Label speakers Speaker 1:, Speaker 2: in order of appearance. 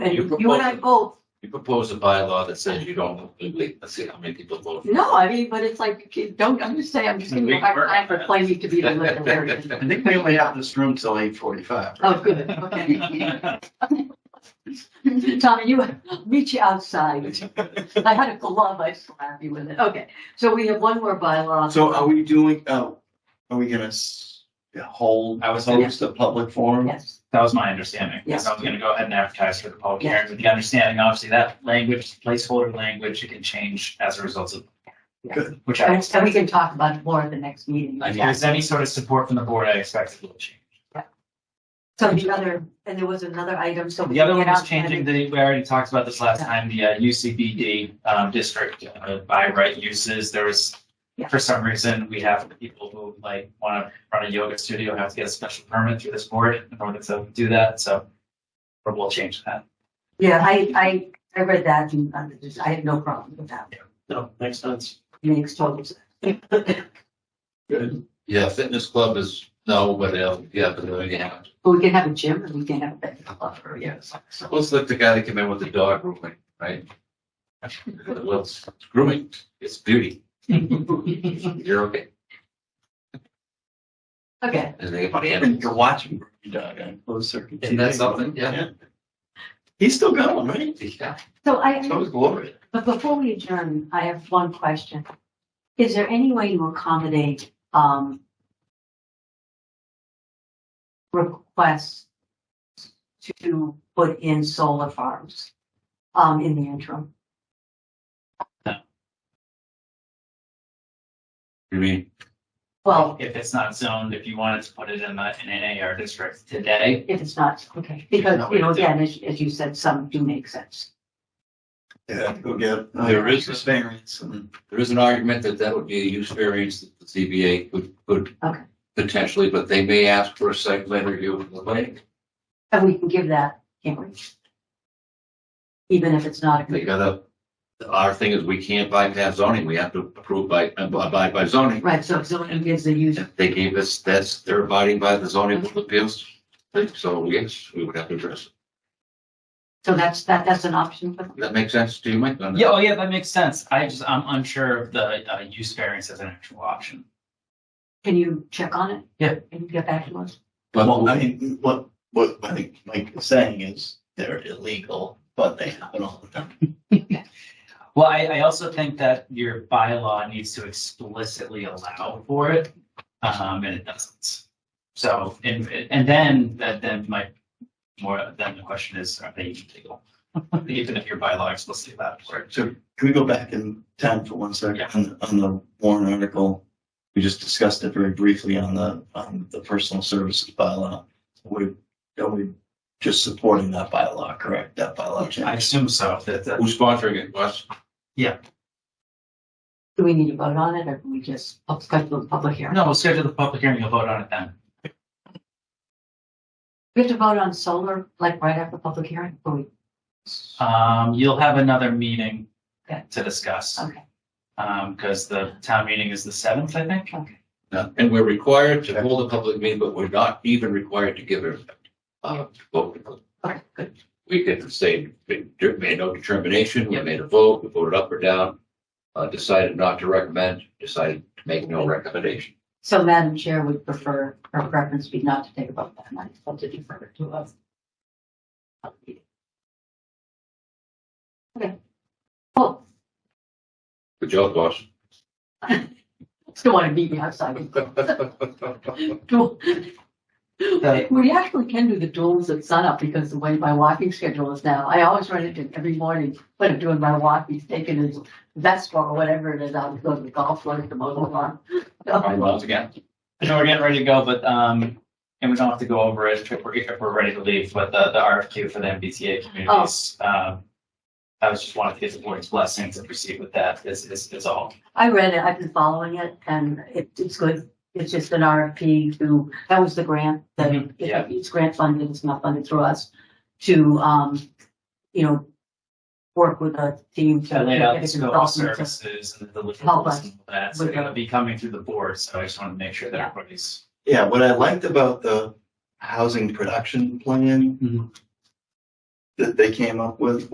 Speaker 1: And
Speaker 2: You
Speaker 1: you and I
Speaker 2: propose-
Speaker 1: both,
Speaker 2: You proposed a bylaw that says you don't, let's see how many people vote.
Speaker 1: no, I mean, but it's like, you don't, I'm just saying, I'm just gonna go back time for planning to be the liquor area.
Speaker 3: I think we only have this room till eight forty-five.
Speaker 1: Oh, good, okay. Tommy, you, I'll meet you outside. I had a glove, I slap you with it. Okay, so we have one more bylaw.
Speaker 3: So are we doing, uh, are we gonna s- hold,
Speaker 4: I was hoping-
Speaker 3: host a public forum?
Speaker 1: Yes.
Speaker 4: That was my understanding.
Speaker 1: Yes.
Speaker 4: So I was gonna go ahead and advertise for the public
Speaker 1: Yes.
Speaker 4: hearing with the understanding, obviously, that language, placeholder language, it can change as a result of.
Speaker 1: Yeah.
Speaker 3: Good.
Speaker 4: Which I,
Speaker 1: And
Speaker 4: expect.
Speaker 1: and we can talk about it more at the next meeting.
Speaker 4: if there's any sort of support from the board, I expect it will change.
Speaker 1: So the other, and there was another item, so.
Speaker 4: The other one
Speaker 1: we
Speaker 4: was
Speaker 1: had-
Speaker 4: changing the, we already talked about this last time, the uh, UCBD um, district uh, by right uses. There was,
Speaker 1: Yeah.
Speaker 4: for some reason, we have people who like want to run a yoga studio, have to get a special permit through this board in order to do that, so we'll change that.
Speaker 1: Yeah, I, I, I read that and I just- I had no problem with that.
Speaker 5: No, makes sense.
Speaker 1: Makes total sense.
Speaker 3: Good.
Speaker 2: Yeah, fitness club is, no, but, uh, yeah, but then you have,
Speaker 1: But we can have a gym and we can have a bed club or, yes. So
Speaker 2: let's look the guy that came in with the dog grooming, right? Well, it's grooming, it's beauty. You're okay.
Speaker 1: Okay,
Speaker 2: And they get money in.
Speaker 3: You're watching your dog on closed circuit.
Speaker 2: Isn't that
Speaker 3: TV.
Speaker 2: something? Yeah.
Speaker 3: He's still going, right?
Speaker 2: Yeah,
Speaker 1: so I,
Speaker 2: so is Gloria.
Speaker 1: But before we adjourn, I have one question. Is there any way to accommodate, um, requests to put in solar farms, um, in the interim?
Speaker 2: You mean,
Speaker 1: Well,
Speaker 4: If it's not zoned, if you wanted to put it in the, in an AR district today,
Speaker 1: if it's not, okay, because, you know, again, as, as you said, some do make sense.
Speaker 3: Yeah, go get. uh,
Speaker 2: There is a-
Speaker 3: Experience and.
Speaker 2: there is an argument that that would be a use variance that the ZBA could, could
Speaker 1: Okay.
Speaker 2: potentially, but they may ask for a site plan review of the planning.
Speaker 1: And we can give that, can't we? Even if it's not.
Speaker 2: They
Speaker 1: a
Speaker 2: gotta, our thing is we can't bypass zoning, we have to approve by, abide by zoning.
Speaker 1: Right, so if someone gives the user,
Speaker 2: If They gave us, that's, they're abiding by the zoning board of appeals, so yes, we would have to address it.
Speaker 1: so that's, that, that's an option for them.
Speaker 2: That makes sense to you, Mike? on that?
Speaker 4: yeah, oh yeah, that makes sense. I just, I'm unsure of the uh, use variance as an actual option.
Speaker 1: Can you check on it?
Speaker 4: Yeah.
Speaker 1: Can you get back to us?
Speaker 3: Well, I
Speaker 2: But,
Speaker 3: mean, what, what I think Mike is saying is they're illegal, but they happen all the time.
Speaker 4: Well, I, I also think that your bylaw needs to explicitly allow for it, um, and it doesn't. So, and, and then, that, then my, more, then the question is, are they even legal? Even if your bylaw explicitly allowed for it.
Speaker 3: So can we go back in time for one second
Speaker 4: Yeah.
Speaker 3: on, the- on the Warren article? We just discussed it very briefly on the, on the personal services bylaw. We, are we just supporting that bylaw, correct? That bylaw
Speaker 4: I
Speaker 3: change?
Speaker 4: assume so, that, that,
Speaker 2: who's sponsoring it, Wes?
Speaker 1: Do we need to vote on it or can we just up- schedule the public hearing?
Speaker 4: no, we'll schedule the public hearing, you'll vote on it then.
Speaker 1: We have to vote on solar, like right after public hearing? Or we-
Speaker 4: Um, you'll have another meeting
Speaker 1: Okay.
Speaker 4: to discuss,
Speaker 1: Okay,
Speaker 4: um, because the town meeting is the seventh, I think.
Speaker 1: okay.
Speaker 2: No, And we're required to hold a public meeting, but we're not even required to give it. Uh, vote.
Speaker 1: Okay, good.
Speaker 2: We can say, we made no determination, we made a vote, we voted up or down, uh, decided not to recommend, decided to make no recommendation.
Speaker 1: So Madam Chair would prefer, her preference be not to take a vote that night, but to defer it to us. Okay. Cool.
Speaker 2: Good job, boss.
Speaker 1: Still want to meet me outside. Duel.
Speaker 4: The-
Speaker 1: We actually can do the duels at sunup because the way my walking schedule is now, I always run into it every morning when I'm doing my walk, he's taking his vest or whatever it is out to go to the golf course to mow the lawn.
Speaker 4: Alright, well, it's again. I know we're getting ready to go, but, um, and we don't have to go over it if we're, if we're ready to leave, but the, the RFQ for the MBTA communities,
Speaker 1: Oh.
Speaker 4: um, I was just wanted to get the board's blessing to proceed with that is, is, is all.
Speaker 1: I read it, I've been following it and it, it's good. It's just an RFP to, that was the grant, that
Speaker 4: Mhm, yeah.
Speaker 1: it's grant funded, it's not funded through us, to, um, you know, work with a team to.
Speaker 4: I laid out
Speaker 1: get
Speaker 4: the
Speaker 1: a
Speaker 4: scope of
Speaker 1: consultant to-
Speaker 4: services and the
Speaker 1: Help
Speaker 4: deliverables
Speaker 1: us
Speaker 4: and all that, so
Speaker 1: with
Speaker 4: they're gonna
Speaker 1: the-
Speaker 4: be coming through the board, so I just wanted to make sure that
Speaker 1: Yeah.
Speaker 4: everybody's.
Speaker 3: Yeah,
Speaker 4: Mm-hmm.
Speaker 3: what I liked about the housing production plan
Speaker 4: Mhm.
Speaker 3: that they came up with